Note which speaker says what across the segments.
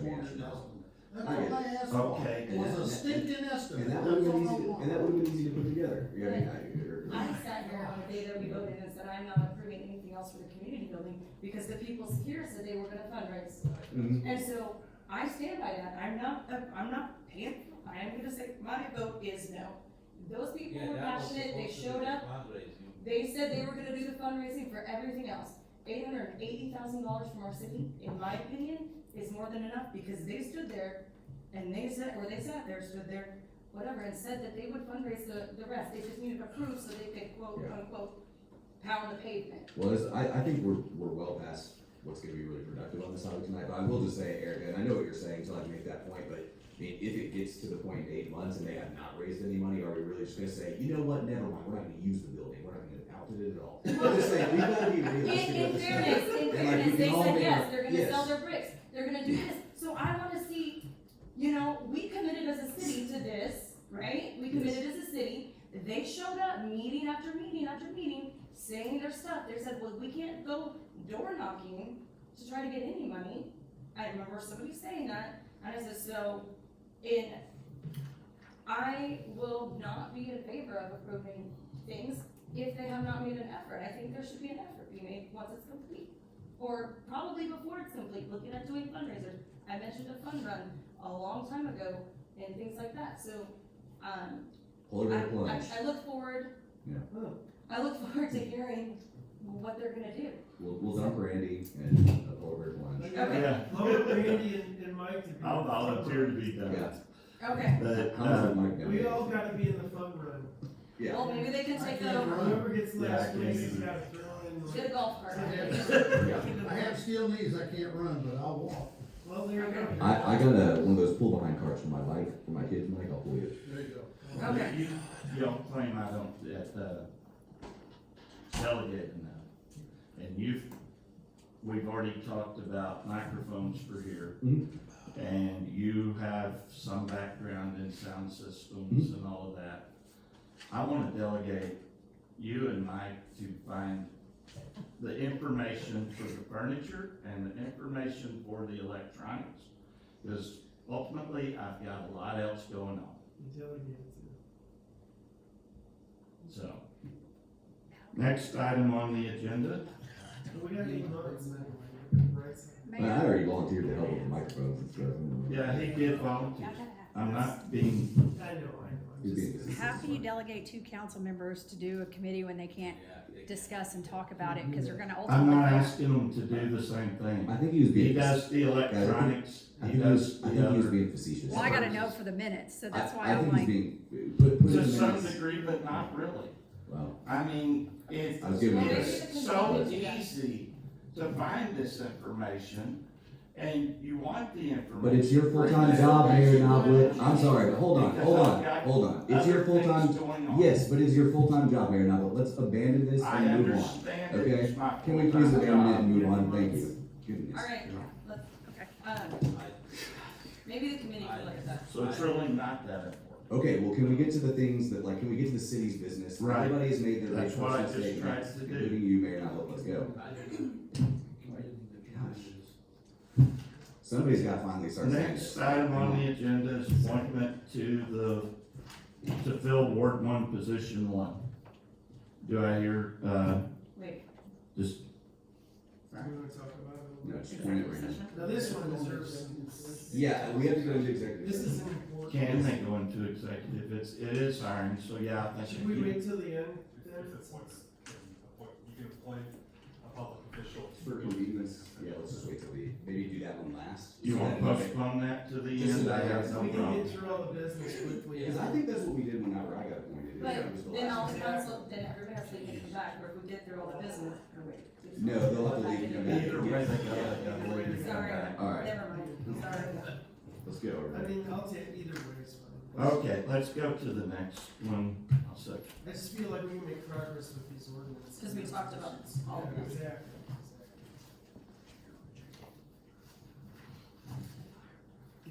Speaker 1: hundred thousand. That's all I asked for,
Speaker 2: Okay.
Speaker 1: was a stinking estimate,
Speaker 3: And that
Speaker 1: that's
Speaker 3: would've
Speaker 1: all
Speaker 3: been
Speaker 1: I
Speaker 3: easy,
Speaker 1: want.
Speaker 3: and that would've been easy to put together, you know, I mean, I-
Speaker 4: I sat here on the day that we voted and said, I'm not approving anything else for the community building, because the people here said they were gonna fundraise.
Speaker 3: Mhm.
Speaker 4: And so, I stand by that, I'm not, I'm not paying, I am gonna say, my vote is no. Those people
Speaker 5: Yeah,
Speaker 4: were
Speaker 5: that was
Speaker 4: passionate, they
Speaker 5: supposed to
Speaker 4: showed
Speaker 5: be
Speaker 4: up,
Speaker 5: Fundraising.
Speaker 4: they said they were gonna do the fundraising for everything else. Eight hundred and eighty thousand dollars from our city, in my opinion, is more than enough, because they stood there, and they said, or they sat there, stood there, whatever, and said that they would fundraise the, the rest, they just needed approval so they could quote,
Speaker 3: Yeah.
Speaker 4: unquote, pound the pavement.
Speaker 3: Well, this, I, I think we're, we're well past what's gonna be really productive on this topic tonight, but I will just say, Eric, and I know what you're saying, so I can make that point, but I mean, if it gets to the point in eight months and they have not raised any money, are we really just gonna say, you know what, never mind, we're not gonna use the building, we're not gonna outfit it at all? I'm just saying, we gotta be
Speaker 4: In,
Speaker 3: realistic about
Speaker 4: in
Speaker 3: this.
Speaker 4: fairness, in
Speaker 3: And, like, we
Speaker 4: fairness, they
Speaker 3: can all
Speaker 4: said
Speaker 3: be-
Speaker 4: yes, they're gonna
Speaker 3: yes.
Speaker 4: sell their bricks, they're gonna do this, so I wanna see, you know, we committed as a city to this, right? We committed as a city, they showed up, meeting after meeting after meeting, saying their stuff, they said, well, we can't go door knocking to try to get any money. I remember somebody saying that, and I said, so, in, I will not be in favor of approving things if they have not made an effort. I think there should be an effort be made once it's complete, or probably before it's complete, looking at doing fundraisers. I mentioned a fund run a long time ago and things like that, so, um,
Speaker 3: Polar
Speaker 4: I,
Speaker 3: bear plunge.
Speaker 4: I- I look forward.
Speaker 3: Yeah.
Speaker 4: I look forward to hearing what they're gonna do.
Speaker 3: We'll, we'll dump Randy and a polar bear plunge.
Speaker 2: Yeah,
Speaker 6: Lower Randy and, and Mike to be.
Speaker 2: I'll volunteer to be done.
Speaker 3: Yeah,
Speaker 4: Okay,
Speaker 2: But,
Speaker 3: I'm with
Speaker 2: um,
Speaker 3: Mike now.
Speaker 6: We all gotta be in the fun run.
Speaker 3: Yeah,
Speaker 4: well, maybe they can take that over,
Speaker 6: Whoever gets
Speaker 2: Yeah, I
Speaker 6: last
Speaker 2: can
Speaker 6: place
Speaker 2: see
Speaker 6: has
Speaker 2: that.
Speaker 6: gotta throw in
Speaker 4: get a
Speaker 6: like.
Speaker 4: golf cart.
Speaker 3: yeah.
Speaker 1: I have steel knees, I can't run, but I'll walk.
Speaker 6: Well, there you go.
Speaker 3: I, I got a, one of those pull behind carts for my life, for my kids, Mike, I'll pull you.
Speaker 1: There you go.
Speaker 4: Okay.
Speaker 2: You, you don't claim I don't, that, uh, delegate enough. And you've, we've already talked about microphones for here.
Speaker 3: Mhm.
Speaker 2: And you have some background in sound systems and all of that. I wanna delegate you and Mike to find the information for the furniture and the information for the electronics. Cause ultimately, I've got a lot else going on. So, next item on the agenda,
Speaker 6: But we gotta be months anyway. Right.
Speaker 3: But I already volunteered to help with the microphones and stuff.
Speaker 2: yeah, he did volunteer. I'm not being,
Speaker 6: I know, I know. I'm
Speaker 3: You're
Speaker 6: just-
Speaker 3: being-
Speaker 7: How can you delegate two council members to do a committee when they can't discuss and talk about it, because they're gonna
Speaker 2: I'm not
Speaker 7: ultimately.
Speaker 2: asking him to do the same
Speaker 3: I
Speaker 2: thing.
Speaker 3: think he was being.
Speaker 2: He does the electronics,
Speaker 3: I
Speaker 2: he
Speaker 3: think he was,
Speaker 2: does
Speaker 3: I think
Speaker 2: the
Speaker 3: he was
Speaker 2: other,
Speaker 3: being facetious.
Speaker 7: Well, I gotta know for the minutes, so that's
Speaker 3: I-
Speaker 7: why
Speaker 3: I
Speaker 7: I'm
Speaker 3: think he's
Speaker 7: like,
Speaker 3: being, put, put in
Speaker 2: to
Speaker 3: the
Speaker 2: some
Speaker 3: minutes.
Speaker 2: degree, but not really.
Speaker 3: Wow,
Speaker 2: I mean, it,
Speaker 3: I was giving you this.
Speaker 2: it's so easy to find this information, and you want the information.
Speaker 3: But it's your full-time job, Mayor Knoblet, I'm sorry, but hold on,
Speaker 2: Because
Speaker 3: hold on,
Speaker 2: I've got
Speaker 3: hold on, it's your
Speaker 2: other things
Speaker 3: full-time,
Speaker 2: going on.
Speaker 3: yes, but it's your full-time job, Mayor Knoblet, let's abandon this
Speaker 2: I
Speaker 3: and move on.
Speaker 2: understand it is my
Speaker 3: Can we please
Speaker 2: full-time
Speaker 3: abandon it
Speaker 2: job.
Speaker 3: and move on, thank you, goodness.
Speaker 4: All right, let's,
Speaker 7: Okay.
Speaker 4: um, maybe the committee can look at that.
Speaker 2: So it's really not that important.
Speaker 3: Okay, well, can we get to the things that, like, can we get to the city's business?
Speaker 2: Right.
Speaker 3: Everybody has made their
Speaker 2: That's what I
Speaker 3: personal
Speaker 2: just tried
Speaker 3: statements,
Speaker 2: to do.
Speaker 3: including you, Mayor Knoblet, let's go. Somebody's gotta finally start saying this.
Speaker 2: Next item on the agenda is appointment to the, to fill Ward One, Position One. Do I hear, uh,
Speaker 4: Wait.
Speaker 2: just,
Speaker 6: Do you wanna talk about
Speaker 3: No, just point it right now.
Speaker 6: it? Now, this one deserves. an-
Speaker 3: Yeah, we have to go into executive.
Speaker 6: This
Speaker 3: session.
Speaker 6: is important.
Speaker 2: can they go into executive? It's, it is hiring, so yeah, I
Speaker 6: Should
Speaker 2: think.
Speaker 6: we
Speaker 2: you-
Speaker 6: wait till the end?
Speaker 8: If there's an appointment, then appoint- you can appoint a public official.
Speaker 3: For convenience, yeah, let's just wait till the, maybe do that one last.
Speaker 2: You
Speaker 3: So
Speaker 2: wanna
Speaker 3: that we-
Speaker 2: postpone that to the
Speaker 3: Just
Speaker 2: end?
Speaker 3: so
Speaker 2: I
Speaker 3: that
Speaker 2: have
Speaker 3: it's-
Speaker 2: no
Speaker 6: We can
Speaker 2: problem.
Speaker 6: get through all the business quickly.
Speaker 3: Because I think that's what we did whenever I got appointed. It was the
Speaker 4: But then all
Speaker 3: last
Speaker 4: the
Speaker 3: one.
Speaker 4: council, then everybody has to come back, or if we get through all the business, or wait.
Speaker 3: No, they'll have to leave and come back.
Speaker 2: Either way, they gotta, gotta wait to come
Speaker 4: Sorry,
Speaker 2: back.
Speaker 3: All right.
Speaker 4: never mind, sorry.
Speaker 3: Let's go
Speaker 6: I
Speaker 3: over it.
Speaker 6: mean, I'll take either way, it's fine.
Speaker 2: Okay, let's go to the next one. I'll second.
Speaker 6: I just feel like we can make progress with these ordinances.
Speaker 4: 'Cause we talked about all of
Speaker 6: Yeah,
Speaker 4: them.
Speaker 6: Exactly, exactly.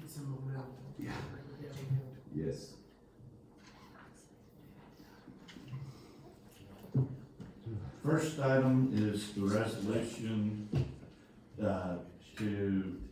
Speaker 6: Get some momentum.
Speaker 3: Yeah.
Speaker 6: Yeah, we can.
Speaker 3: Yes.
Speaker 2: First item is the resolution, uh, to